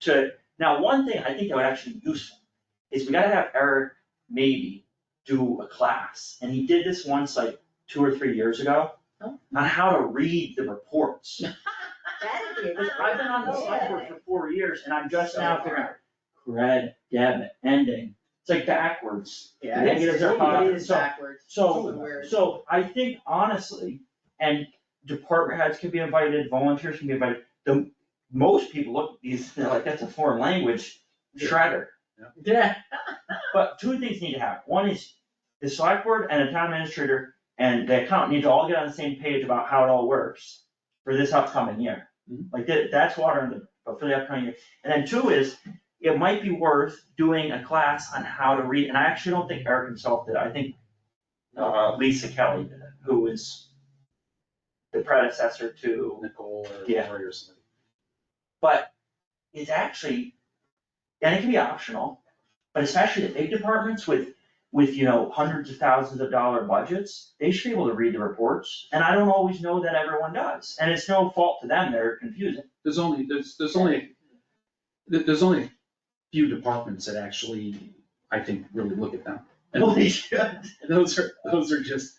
to, now, one thing I think that would actually be useful is we gotta have Eric maybe do a class, and he did this once like two or three years ago Oh. on how to read the reports. That'd be a good. Because I've been Ah. on the select board for four years and I'm just now figuring out cred, debit, ending, it's like backwards. Yeah, Negatives it's- are hard. it is So- backwards. So, It's weird. so I think honestly, and department heads can be invited, volunteers can be invited, the, most people look at these, they're like, that's a foreign language shredder. Yeah, But two things need to happen, one is the select board and the town administrator and the accountant need to all get on the same page about how it all works for this upcoming year. Like that, that's water in the, but for the upcoming year, and then two is, it might be worth doing a class on how to read, and I actually don't think Eric himself did, I think uh, Lisa Kelly did it, who was the predecessor to Nicole or Yeah. Lori or somebody. is actually, and it can be optional, but especially the big departments with, with, you know, hundreds of thousands of dollar budgets, they should be able to read the reports, and I don't always know that everyone does, and it's no fault to them, they're confusing. There's only, there's, there's only, there- there's only a few departments that actually, I think, really look at them. Well, And they should. those are, those are just,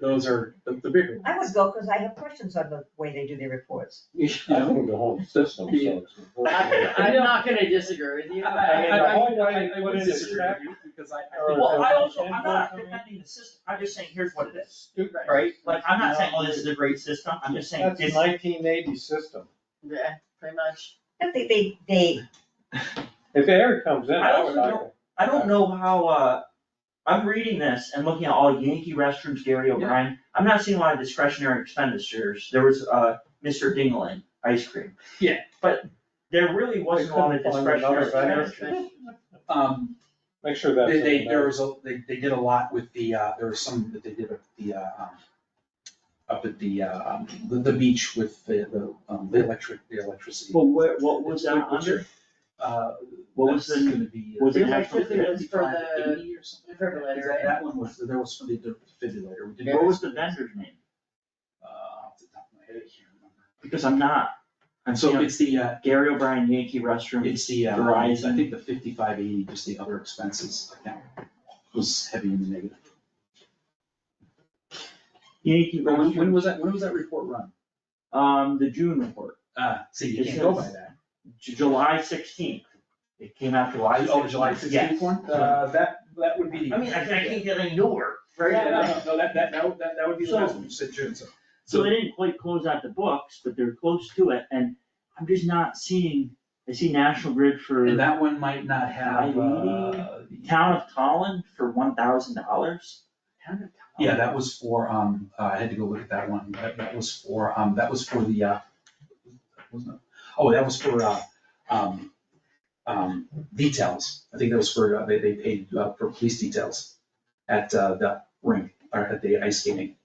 those are the the bigger I would ones. go, cause I have questions on the way they do their repords. You I know? think the whole system sucks. I- I'm not gonna disagree with you. I- but- I- I- The whole way I- I they would put in the disagree with check. you because I, I think. Well, I also, I'm not defending the system, I'm just saying, here's what it is, Right. right? Like, I'm not saying, oh, this is a great system, I'm just saying, That's this, nineteen eighty system. Yeah, pretty much. But they, they, they, If air comes in, I I would also like, don't- I don't know how, uh, I'm reading this and looking at all Yankee restrooms, Gary O'Brien, I'm not seeing a lot of discretionary expenditures, there was, uh, Mr. Dingling, ice cream. Yeah. But there really wasn't a lot of couldn't find another discretionary vendor. expenditures. Um, make sure that's. They, they, in there was a, they, they did a lot with the, uh, there was some that they did up at the, uh, um, up at the, uh, um, the, the beach with the, the, um, the electric, the electricity. Well, where, what was that under? Uh, What was that's the- gonna be. was it Yeah, actually because it was for 55 to the 80 or something? defibrillator, Is that- right? That one was, there was something that defibrillator. We did- What was the vendor's name? Uh, off the top of my head, I can't remember. Because I'm not, I'm And so seeing it's the, uh, Gary O'Brien Yankee restroom, it's the, uh, Verizon. I think the fifty-five eighty, just the other expenses, like that was heavy in the negative. Yankee When, when restroom, was that, when was that report run? um, the June report, Uh, see, you It can't go by says- that. Ju- July sixteenth, it came out July sixteenth. Oh, July sixteenth one? Uh, that, that would be the. I mean, I can't, I can't get any newer. Right, Yeah, no, no, no, that, that, that would- that, that would be the So- last one, you said June, so. So they didn't quite close out the books, but they're close to it, and I'm just not seeing, I see National Grid for And that one might not have, uh. Maybe. Town of Tallinn for one thousand dollars. Yeah, that was for, um, uh, I had to go look at that one, that, that was for, um, that was for the, uh, wasn't it? Oh, that was for, uh, um, um, details, I think that was for, uh, they, they paid, uh, for police details at, uh, the rink, or at the ice skating.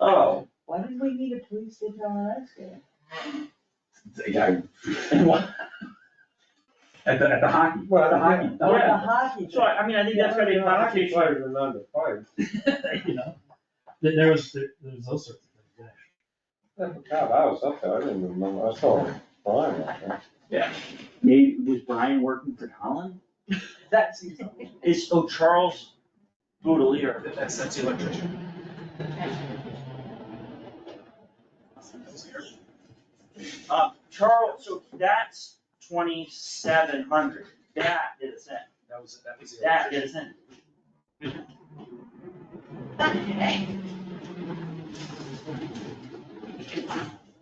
Oh, Why did we need a police detail on ice skating? The guy- At the, at the hockey, Well, the hockey. Oh, The yeah. hockey. so I, I mean, I think that's gonna be a Hockey conversation. players are not the players. You know, There, there was, there there was all sorts of things. God, I was up there, I didn't remember, I saw Brian up there. Maybe, was Brian working for Tallinn? That seems. a little- It's, oh, Charles Boudelier. that's, that's the electrician. Uh, Charles, so that's twenty-seven hundred. That did us in. That was, that was the. That did us in.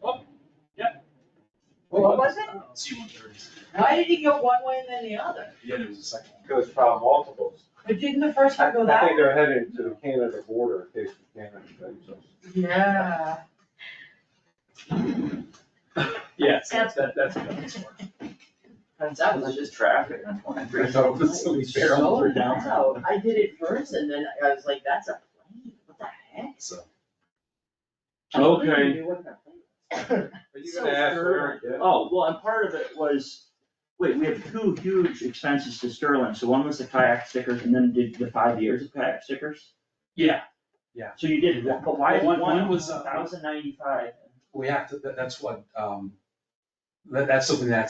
Oh, what was it? C one thirties. Why did he go one way and then the other? Yeah, there was a second one. Goes probably multiples. But didn't the first I one go that think way? they're heading to the Canada border, in case the Canada takes us. Yeah. Yeah, so that's, that, that's. what that was for. That was just traffic on twenty-three. I thought it was somebody barreling Oh, through downtown, wow, I did it first and then I was like, that's a plane, what the heck? so. I don't Okay. even know what that plane was. Are you gonna ask Eric yet? Oh, well, and part of it was, wait, we have two huge expenses to Sterling, so one was the kayak stickers and then did the five years of kayak stickers? Yeah, So you did, one- but why is One- one one was, uh, thousand ninety-five? we have to, that, that's what, um, that, that's something that